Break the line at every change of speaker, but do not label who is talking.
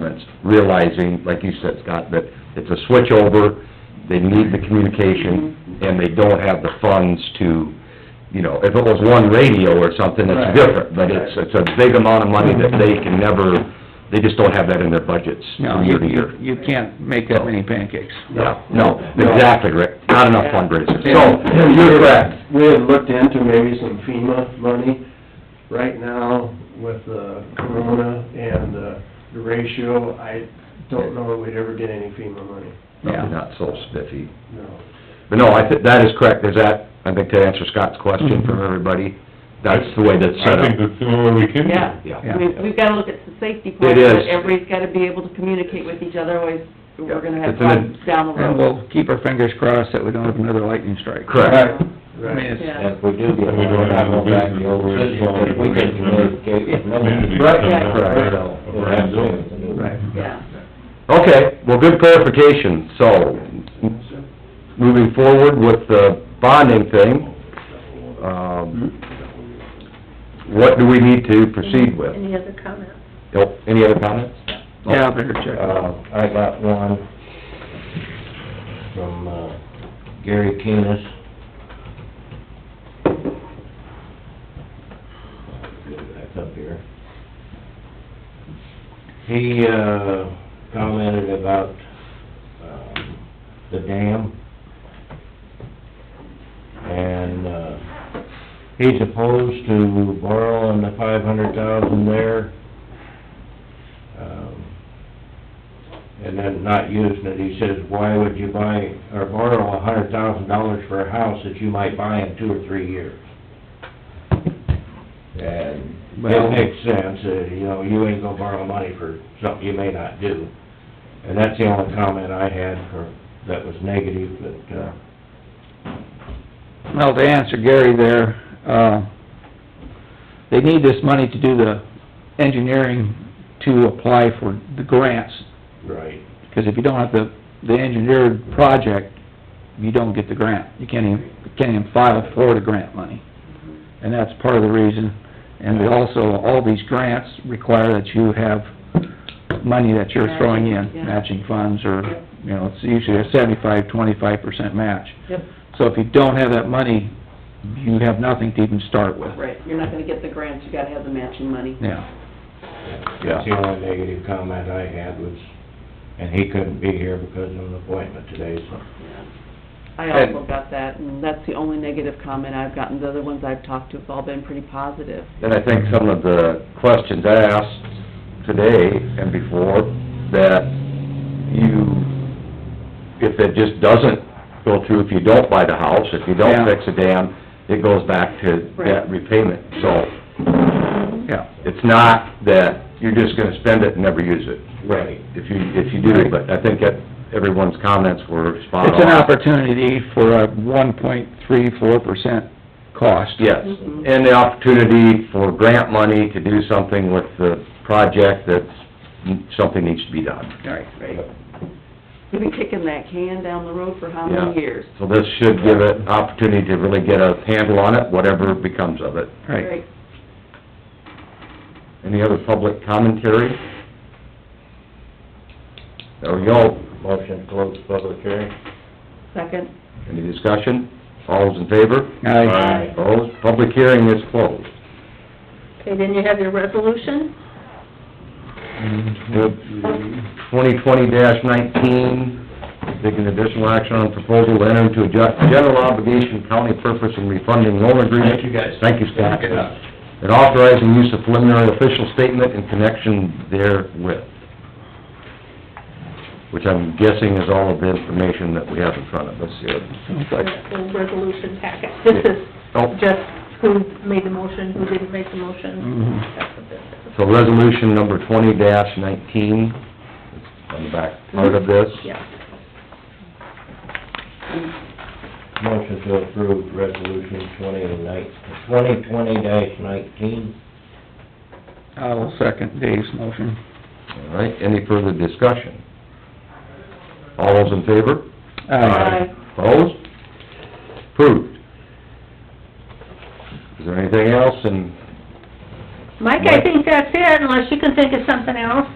departments, realizing, like you said, Scott, that it's a switchover, they need the communication,
Mm-hmm.
and they don't have the funds to, you know, if it was one radio or something,
Right.
it's different, but it's, it's a big amount of money that they can never, they just don't have that in their budgets
No,
from
you,
year to year.
you, you can't make that many pancakes.
Yeah, no, exactly, Rick, not enough fundraisers, so, you're correct.
We had looked into maybe some FEMA money. Right now, with the corona and uh, the ratio, I don't know that we'd ever get any FEMA money,
Probably
Yeah.
not so spiffy.
no.
But no, I think, that is correct, there's that, I think to answer Scott's question
Mm-hmm.
from everybody, that's the way that's set
I think
up.
that's the only way we can do it.
Yeah,
Yeah.
I mean, we've gotta look at the safety part,
It is.
but everybody's gotta be able to communicate with each other, otherwise
Yeah.
we're gonna have
It's an ad-
problems down the
And
road.
we'll keep our fingers crossed that we don't have another lightning strike.
Correct.
I mean, it's,
Yeah.
And if we do
And
get
we don't
one, we're not
have no
going back to the old
business.
system, because we can communicate with no one.
Community coming
Yeah.
up
Right.
So,
with
we're
our
not
building.
doing it.
right.
Yeah.
Okay, well, good clarification, so, moving forward with the bonding thing, um, what do we need to proceed with?
Any other comments?
Oh, Any other comments?
Yeah, I better check.
Uh, I got one from uh, Gary Keenest. Get it back up here. He, uh, commented about, um, the dam. And, uh, he's opposed to borrowing the five hundred thousand there. Um, and then not using it, he says, why would you buy, or borrow a hundred thousand dollars for a house that you might buy in two or three years? And
Well-
it makes sense, uh, you know, you ain't gonna borrow money for something you may not do. And that's the only comment I had for, that was negative, but, uh,
Well, to answer Gary there, uh, they need this money to do the engineering to apply for the grants,
right,
because if you don't have the, the engineered project, you don't get the grant. You can't even, you can't even file for the grant money. And that's part of the reason. And they also, all these grants require that you have money that you're throwing
Matching, yeah.
in, matching funds, or,
Yep.
you know, it's usually a seventy-five, twenty-five percent match.
Yep,
So if you don't have that money, you have nothing to even start with.
right, you're not gonna get the grants, you gotta have the matching money.
Yeah,
that's the only negative comment I had was, and he couldn't be here because of an appointment today, so.
Yeah. I also got that, and that's the only negative comment I've gotten, the other ones I've talked to have all been pretty positive.
And I think some of the questions asked today and before, that you, if it just doesn't go through, if you don't buy the house, if you
Yeah.
don't fix the dam, it goes back to
Right.
that repayment. So
yeah.
it's not that you're just gonna spend it and never use it.
Right.
If you, if you do, but I think that everyone's comments were spot on.
It's an opportunity for a one point three, four percent cost.
Yes,
Mhm.
and the opportunity for grant money to do something with the project that's, mm, something needs to be done.
Right.
Right. We've been kicking that can down the road for how many
Yeah.
years?
So this should give it opportunity to really get a handle on it, whatever becomes of it.
Right.
Any other public commentary? There we go.
Motion to close public hearing.
Second?
Any discussion? All those in favor?
Aye.
Opposed? Public hearing is closed.
Okay, then you have your resolution.
Twenty twenty nineteen, taking additional action on proposal to enter into a ju- general obligation county purpose and refunding loan agreement.
Thank you, guys.
Thank you, Scott.
Good enough.
And authorizing use of preliminary official statement in connection therewith. Which I'm guessing is all of the information that we have in front of us here.
Sounds like,
That's the resolution packet. This is
Oh,
just who made the motion, who didn't make the motion.
Mm.
mhm.
That's what this is.
so resolution number twenty nineteen, on the back part of this.
Yeah.
Motion to approve resolution twenty nineteen, twenty twenty dash nineteen.
I'll second Dave's motion.
All right, any further discussion? All those in favor?
Aye.
Opposed? Approved. Is there anything else in
Mike, I think that's it, unless you can think of something else.